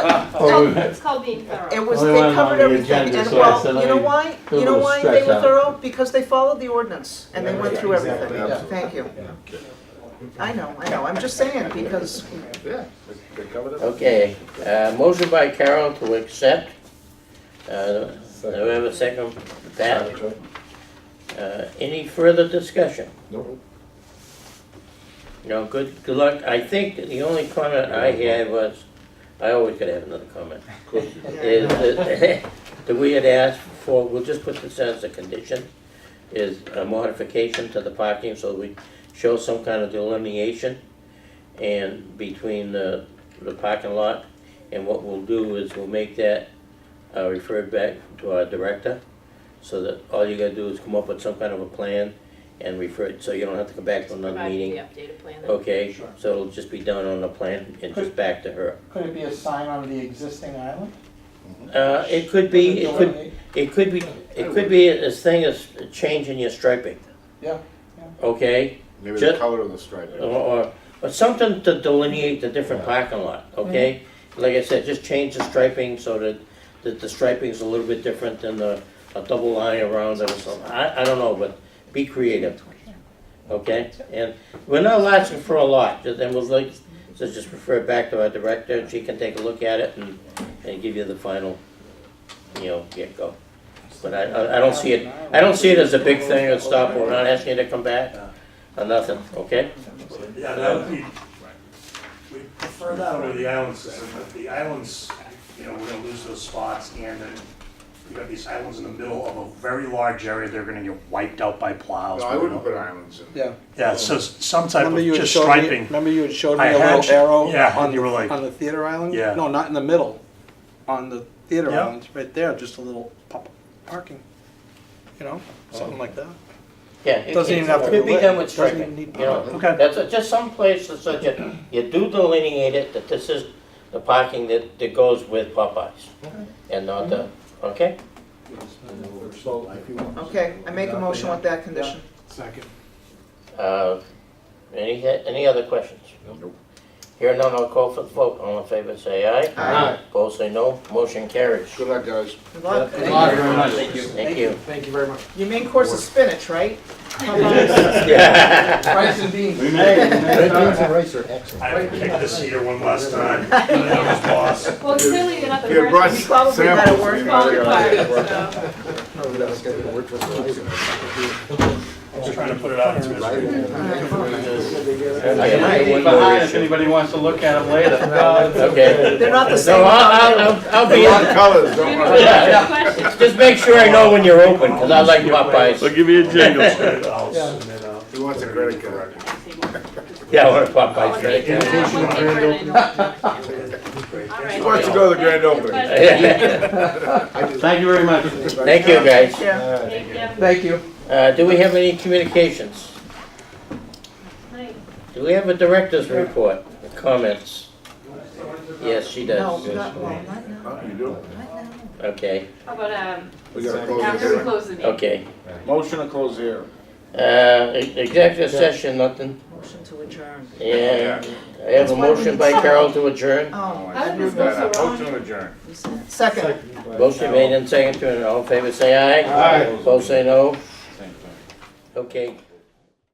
called, wait. it's called being thorough. It was, Only they one on covered the everything, agenda, and so I well, said you know I why, feel a you know little why they stretched were out. thorough? Because they followed the ordinance, and they Yeah, went yeah, through exactly, everything, absolutely. thank you. I know, I know, I'm just saying, because Yeah, they- they covered it. Okay, uh, motion by Carol to accept, uh, November second, that, Second. uh, any further discussion? Nope. No, good, good luck, I think the only comment I had was, I always gotta have another comment, Of course you did. is that, that we had asked for, we'll just put this as a condition, is a modification to the parking, so we show some kind of delineation and between the, the parking lot, and what we'll do is we'll make that, uh, referred back to our director, so that all you gotta do is come up with some kind of a plan and refer it, so you don't have to come back to another Provide meeting. the updated plan. Okay, Sure. so it'll just be done on the plan and just Could- back to her. Could it be a sign on the existing island? Uh, it could be, it could, Delineate? it could be, it could be as thing as changing your striping. Yeah, yeah. Okay, Maybe the Just- color of the stripe. or, or, or something to delineate the different parking lot, okay? Like I said, just change the striping so that, that the striping's a little bit different than the, a double line around it or something. I, I don't know, but be creative, okay? And we're not asking for a lot, just- and we'll like, so just refer it back to our director, and she can take a look at it and, and give you the final, you know, get-go. But I, I, I don't see it, I don't see it as a big thing or stop, we're not asking you to come back or nothing, okay? Yeah, that would be, we prefer that over the island system, but the islands, you know, we're gonna lose those spots and then you got these islands in the middle of a very large area, they're gonna get wiped out by plows. No, I wouldn't put islands in. Yeah. Yeah, so s- some type of Remember you had just showed me, striping. remember you had showed me I a had little sh- arrow yeah, on and you the, were like- on the theater island? Yeah. No, not in the middle, on the theater Yeah. island, right there, just a little pop parking, you know, something like that. Yeah. it- Doesn't even have to Could be be lit. done with Doesn't striping, even need you know. pop. Okay. That's a- just some place that says you, you do delineate it, that this is the parking that, that goes with Popeyes. And not the, Mm-hmm. okay? Okay, I make a motion with that condition. Second. Uh, Any, any other questions? Nope. Here none, I'll call for the vote. All in favor, say aye. Aye. Opposed, say no. Motion carries. Good luck, guys. Good luck. Thank Thank you you very much. Thank you. Thank you very much. Your main course is spinach, right? Yeah. Rice and beans. We made it. I kicked the cedar one last time, that was boss. Well, clearly you're not the Yeah, Brian. first We probably got Samples, to work you know, on they it. gotta- party, I'm trying to put it out into his. Behind if anybody wants to look at them later. Okay. They're not the So same. I'll, I'll- I'll be, Wrong colors, don't so. worry. Yeah. Questions? just make sure I know when you're open, because I like Popeyes. I'll give you a jingle. I'll submit out. He wants a credit card. Yeah, I want a Popeyes right Yeah, there. one thing for an adult. All He right. wants to go to the grand opening. Thank Thank you very much. you, guys. Yeah. Thank you. Thank you. Uh, do we have any communications? Do we have a director's report, comments? Yes, she No, does. not, well, not now, Huh, You do? not now. Okay, How about, um, We gotta close the after we hearing. close the meeting? okay. Motion to close the hearing. Uh, e- executive session, nothing. Motion to adjourn. Yeah, I have a motion by Carol to adjourn. Oh, How did this go so That, uh, wrong? Motion adjourned. second. Motion made and seconded, all in favor, say aye. Aye. Both say no. Same thing. Okay.